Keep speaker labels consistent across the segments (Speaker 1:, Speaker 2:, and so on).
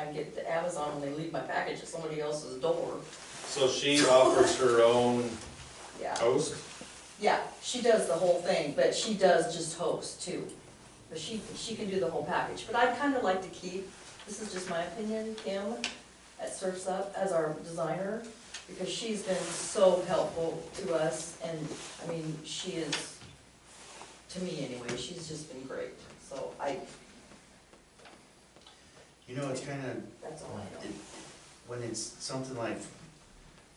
Speaker 1: I get to Amazon and they leave my package at somebody else's door.
Speaker 2: So she offers her own
Speaker 1: Yeah,
Speaker 2: host?
Speaker 1: yeah, she does the whole thing, but she does just host too. But she, she can do the whole package, but I'd kind of like to keep, this is just my opinion, Kim, at Surf's Up as our designer, because she's been so helpful to us and, I mean, she is, to me anyway, she's just been great, so I,
Speaker 3: You know, it's kind of,
Speaker 1: that's all I know.
Speaker 3: when it's something like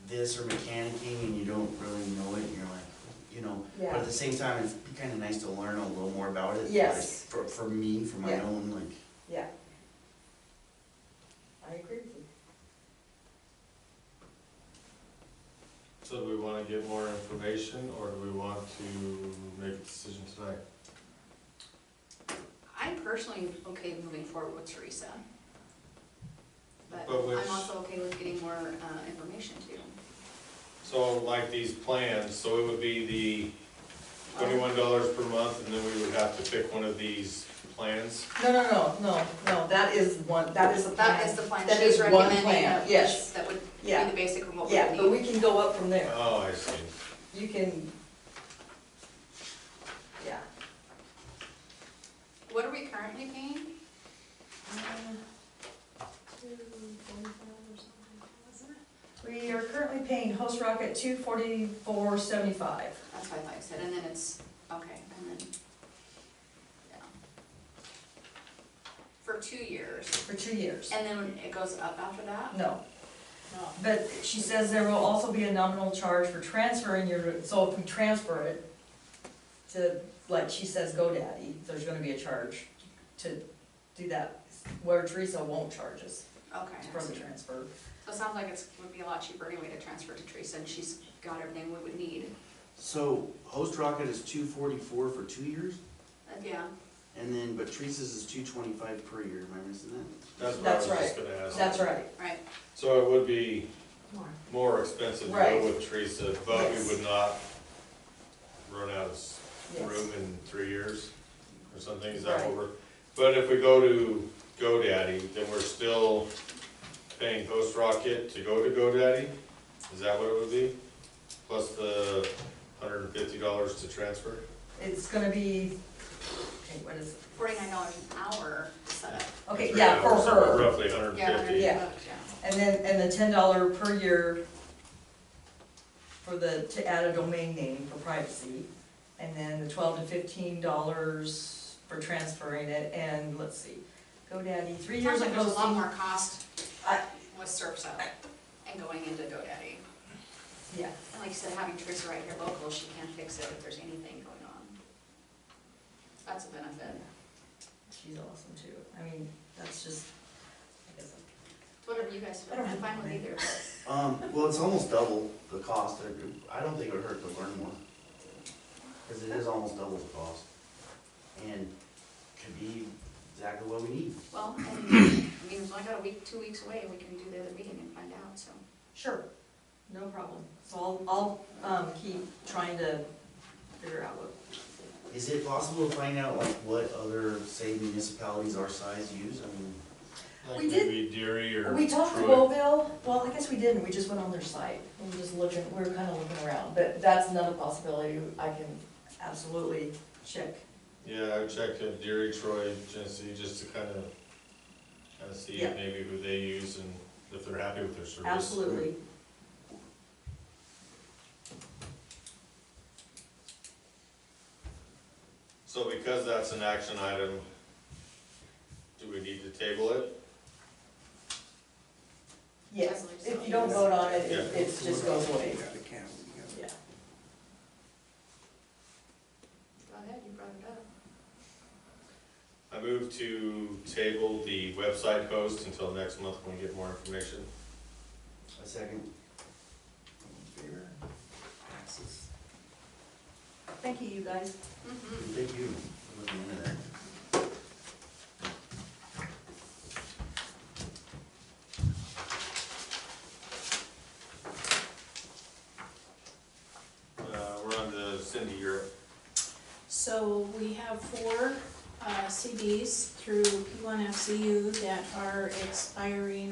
Speaker 3: this or mechanicing and you don't really know it, and you're like, you know, but
Speaker 1: Yeah.
Speaker 3: at the same time, it'd be kind of nice to learn a little more about it. like,
Speaker 1: Yes.
Speaker 3: For, for me, for my
Speaker 1: Yeah.
Speaker 3: own, like,
Speaker 1: Yeah. I agree with you.
Speaker 2: So do we wanna get more information, or do we want to make a decision tonight?
Speaker 4: I'm personally okay moving forward with Teresa. But
Speaker 2: But which-
Speaker 4: I'm also okay with getting more uh, information too.
Speaker 2: So like these plans, so it would be the twenty-one dollars per month, and then we would have to pick one of these plans?
Speaker 1: No, no, no, no, no, that is one, that is a plan.
Speaker 4: That is the plan
Speaker 1: That
Speaker 4: she's
Speaker 1: is one
Speaker 4: recommending,
Speaker 1: plan,
Speaker 4: that-
Speaker 1: yes.
Speaker 4: that would be
Speaker 1: Yeah.
Speaker 4: the basic of what we
Speaker 1: Yeah, but
Speaker 4: would
Speaker 1: we
Speaker 4: need.
Speaker 1: can go up from there.
Speaker 2: Oh, I see.
Speaker 1: You can, yeah.
Speaker 4: What are we currently paying?
Speaker 1: Uh, We are currently paying Host Rock at two forty-four seventy-five.
Speaker 4: That's what I thought you said, and then it's, okay, and then, yeah. For two years,
Speaker 1: For two years.
Speaker 4: and then it goes up after that?
Speaker 1: No,
Speaker 4: No.
Speaker 1: but she says there will also be a nominal charge for transferring your, so if we transfer it to, like she says, GoDaddy, there's gonna be a charge to do that, where Teresa won't charge us
Speaker 4: Okay, I
Speaker 1: for the
Speaker 4: see.
Speaker 1: transfer.
Speaker 4: so it sounds like it's, would be a lot cheaper anyway to transfer to Teresa, and she's got everything we would need.
Speaker 3: so Host Rocket is two forty-four for two years,
Speaker 4: Uh, Yeah,
Speaker 3: and then, but Teresa's is two twenty-five per year, am I missing that?
Speaker 2: That's what I was
Speaker 1: That's
Speaker 2: just gonna ask.
Speaker 1: That's right.
Speaker 4: right,
Speaker 2: So it would be more expensive to
Speaker 1: Right.
Speaker 2: go with Teresa, but we
Speaker 1: Yes.
Speaker 2: would not run out of s-
Speaker 1: Yes.
Speaker 2: room in three years or something, is that
Speaker 1: Right.
Speaker 2: what we're? But if we go to GoDaddy, then we're still paying Host Rocket to go to GoDaddy? Is that what it would be? Plus the hundred and fifty dollars to transfer?
Speaker 1: It's gonna be, okay, what is, it?
Speaker 4: forty-nine dollars an hour to set up.
Speaker 1: okay,
Speaker 2: Three
Speaker 1: yeah, for
Speaker 2: hours, so
Speaker 1: her.
Speaker 2: Roughly hundred
Speaker 4: Yeah,
Speaker 2: and
Speaker 4: hundred
Speaker 2: fifty.
Speaker 1: Yeah.
Speaker 4: bucks, yeah.
Speaker 1: And then, and the ten dollar per year for the, to add a domain name for privacy. And then the twelve to fifteen dollars for transferring it, and let's see, GoDaddy, three years
Speaker 4: Sounds
Speaker 1: of
Speaker 4: like there's a lot
Speaker 1: hosting.
Speaker 4: more cost
Speaker 1: I-
Speaker 4: with Surf's Up and going into GoDaddy.
Speaker 1: Yeah,
Speaker 4: And like you said, having Teresa right here local, she can fix it if there's anything going on. That's a benefit.
Speaker 1: she's awesome too, I mean, that's just, I guess,
Speaker 4: It's Whatever you guys
Speaker 1: I
Speaker 4: feel,
Speaker 1: don't have
Speaker 4: I'm fine with
Speaker 1: one.
Speaker 4: either.
Speaker 3: Um, well, it's almost double the cost, I don't think it would hurt to learn more, because it is almost double the cost. And could be exactly what we need.
Speaker 4: Well, and, I mean, we've only got a week, two weeks away, we can do the other meeting and find out, so.
Speaker 1: sure, no problem. So I'll, I'll, um, keep trying to figure out what
Speaker 3: Is it possible to find out like what other, say municipalities our size use? I mean,
Speaker 2: Like
Speaker 1: We did-
Speaker 2: maybe Deary or
Speaker 1: We talked to
Speaker 2: Troy.
Speaker 1: Bowville, well, I guess we didn't, we just went on their site, we were just looking, we were kind of looking around, but that's another possibility, I can absolutely check.
Speaker 2: Yeah, I checked in Deary, Troy, Genesee, just to kind of, kind of see
Speaker 1: Yeah.
Speaker 2: maybe who they use and if they're happy with their service.
Speaker 1: Absolutely.
Speaker 2: So because that's an action item, do we need to table it?
Speaker 1: Yes, if you don't vote on it, it, it just goes away, yeah.
Speaker 4: Go ahead, you brought it up.
Speaker 2: I move to table the website host until next month when we get more information.
Speaker 3: a second.
Speaker 1: Thank you, you guys.
Speaker 4: Mhm.
Speaker 3: Thank you. for looking into that.
Speaker 2: Uh, we're on to Cindy Europe.
Speaker 5: So we have four uh, CDs through P1FCU that are expiring